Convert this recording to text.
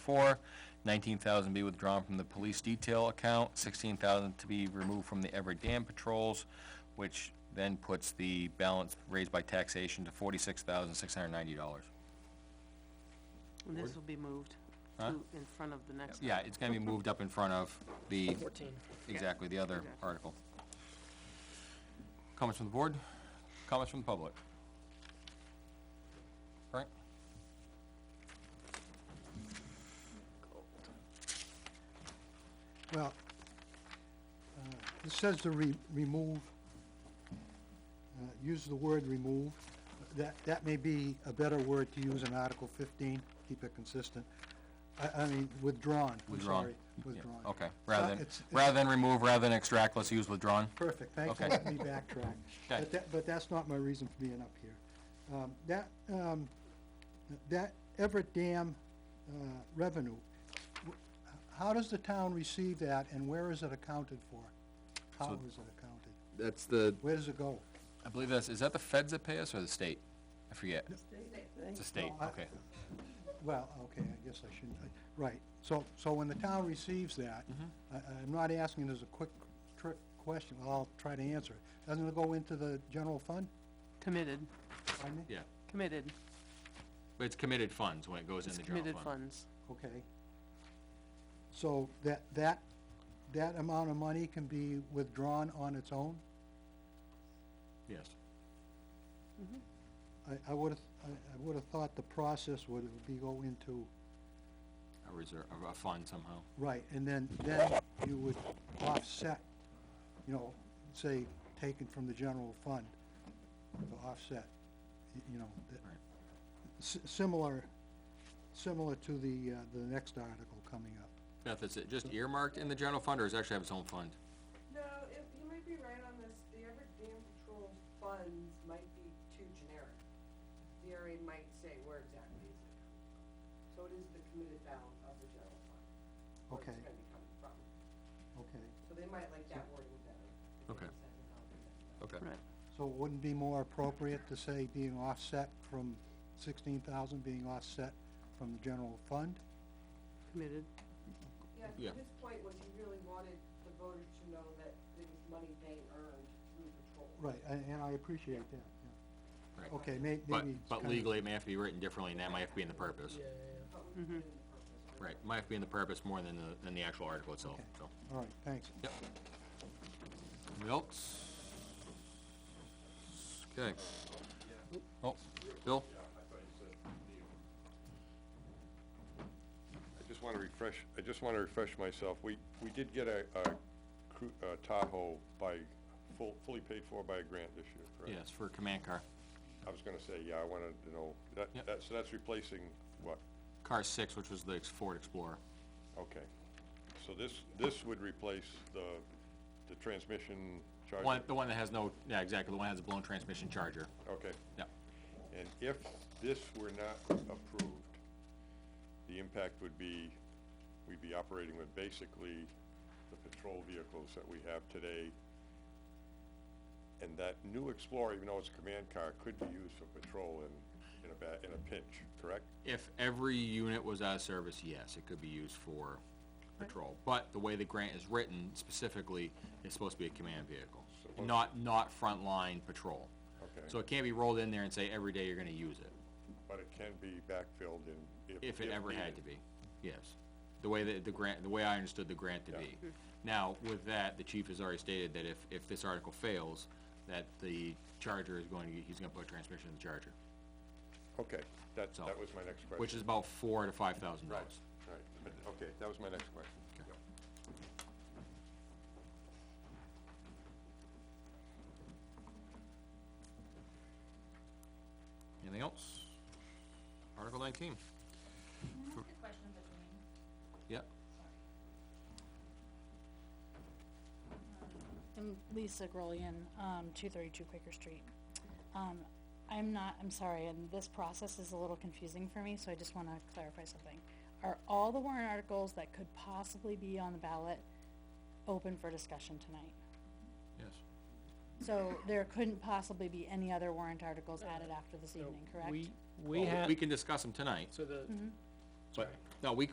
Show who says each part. Speaker 1: four. Nineteen thousand be withdrawn from the police detail account, sixteen thousand to be removed from the Everett Dam patrols, which then puts the balance raised by taxation to forty-six thousand, six hundred and ninety dollars.
Speaker 2: And this will be moved to
Speaker 1: Huh?
Speaker 2: in front of the next.
Speaker 1: Yeah, it's gonna be moved up in front of the,
Speaker 3: Fourteen.
Speaker 1: exactly, the other
Speaker 2: Exactly.
Speaker 1: article. Comments from the board? Comments from the public? Frank?
Speaker 4: Well, uh, it says to re- remove, uh, use the word remove. That, that may be a better word to use in Article fifteen, keep it consistent. I, I mean, withdrawn, I'm
Speaker 1: Withdrawn.
Speaker 4: sorry,
Speaker 1: Yeah,
Speaker 4: withdrawn.
Speaker 1: Okay, rather than,
Speaker 4: it's- it's-
Speaker 1: rather than remove, rather than extract, let's use withdrawn.
Speaker 4: Perfect, thanks for
Speaker 1: Okay.
Speaker 4: letting me backtrack. But that, but that's not my reason for being up here. Um, that, um, that Everett Dam, uh, revenue, w- how does the town receive that and where is it accounted for? How
Speaker 1: So-
Speaker 4: is it accounted?
Speaker 5: That's the,
Speaker 4: Where does it go?
Speaker 1: I believe that's, is that the feds that pay us or the state? I forget. It's the state,
Speaker 4: I-
Speaker 1: okay.
Speaker 4: Well, okay, I guess I shouldn't, I- right, so, so when the town receives that,
Speaker 1: Mm-hmm.
Speaker 4: I, I'm not asking it as a quick trick question, well, I'll try to answer it. Doesn't it go into the general fund,
Speaker 2: Committed,
Speaker 4: pardon me?
Speaker 1: Yeah,
Speaker 2: committed,
Speaker 1: but it's committed funds when it goes in
Speaker 2: it's
Speaker 1: the general
Speaker 2: committed
Speaker 1: fund.
Speaker 2: funds.
Speaker 4: Okay. So that, that, that amount of money can be withdrawn on its own?
Speaker 1: Yes.
Speaker 4: I, I would've, I, I would've thought the process would be go into,
Speaker 1: A reserve, a- a fund somehow.
Speaker 4: right, and then, then you would offset, you know, say, taken from the general fund to offset, y- you know, that,
Speaker 1: Right.
Speaker 4: si- similar, similar to the, uh, the next article coming up.
Speaker 1: Beth, is it just earmarked in the general fund or does it actually have its own fund?
Speaker 6: No, it, you might be right on this, the Everett Dam Patrol funds might be too generic. The area might say where exactly is it coming from. So it is the committed balance of the general fund. where
Speaker 4: Okay.
Speaker 6: it's gonna be coming from.
Speaker 4: Okay,
Speaker 6: So they might like that wording better. if they
Speaker 1: Okay.
Speaker 6: decide to how they do that.
Speaker 1: Okay.
Speaker 2: Right,
Speaker 4: So it wouldn't be more appropriate to say being offset from sixteen thousand being offset from the general fund?
Speaker 2: committed,
Speaker 1: Yeah.
Speaker 6: Yeah, his point was he really wanted the voters to know that it was money they earned through patrol.
Speaker 4: Right, and, and I appreciate that, yeah.
Speaker 1: Right.
Speaker 4: Okay, may,
Speaker 1: But,
Speaker 4: maybe. it's
Speaker 1: but
Speaker 4: kinda-
Speaker 1: legally, it may have to be written differently, and that might have to be in the purpose.
Speaker 3: Yeah, yeah,
Speaker 6: But we
Speaker 2: Mm-hmm.
Speaker 6: put in the purpose.
Speaker 1: Right, might have to be in the purpose more than the, than the actual article itself,
Speaker 4: Okay.
Speaker 1: so.
Speaker 4: All right, thanks.
Speaker 1: Yep. Anybody else? Okay. Oh, Bill?
Speaker 7: I just wanna refresh, I just wanna refresh myself, we, we did get a, a cru- uh, Tahoe by, full, fully paid for by a grant this year, correct?
Speaker 1: Yes, for a command car.
Speaker 7: I was gonna say, yeah, I wanted to know, that,
Speaker 1: Yep.
Speaker 7: that, so that's replacing what?
Speaker 1: Car six, which was the Ford Explorer.
Speaker 7: Okay, so this, this would replace the, the transmission charger?
Speaker 1: One, the one that has no, yeah, exactly, the one that has a blown transmission charger.
Speaker 7: Okay,
Speaker 1: Yeah,
Speaker 7: and if this were not approved, the impact would be, we'd be operating with basically the patrol vehicles that we have today. And that new Explorer, even though it's a command car, could be used for patrol in, in a ba, in a pinch, correct?
Speaker 1: If every unit was out of service, yes, it could be used for patrol. But the way the grant is written specifically, it's supposed to be a command vehicle,
Speaker 7: Supposed to.
Speaker 1: not, not frontline patrol.
Speaker 7: Okay.
Speaker 1: So it can't be rolled in there and say every day you're gonna use it.
Speaker 7: But it can be backfilled in,
Speaker 1: If
Speaker 7: if.
Speaker 1: it ever had to
Speaker 7: needed.
Speaker 1: be, yes. The way that the grant, the way I understood the grant to be.
Speaker 7: Hmm.
Speaker 1: Now, with that, the chief has already stated that if, if this article fails, that the charger is going to, he's gonna put a transmission in the charger,
Speaker 7: Okay, that,
Speaker 1: So-
Speaker 7: that was my next question.
Speaker 1: which is about four to five thousand
Speaker 7: Right,
Speaker 1: dollars.
Speaker 7: right, but, okay, that was my next question.
Speaker 1: Okay.
Speaker 7: Yep.
Speaker 1: Anything else? Article nineteen,
Speaker 8: Can I ask a question of Elaine?
Speaker 1: yep.
Speaker 9: I'm Lisa Grolian, um, two thirty-two Quaker Street. Um, I'm not, I'm sorry, and this process is a little confusing for me, so I just wanna clarify something. Are all the warrant articles that could possibly be on the ballot open for discussion tonight?
Speaker 1: Yes.
Speaker 9: So there couldn't possibly be any other warrant articles added after this
Speaker 3: yeah.
Speaker 9: evening, correct?
Speaker 3: We, we have,
Speaker 1: We can discuss them tonight,
Speaker 3: so the,
Speaker 1: but, no, we, c-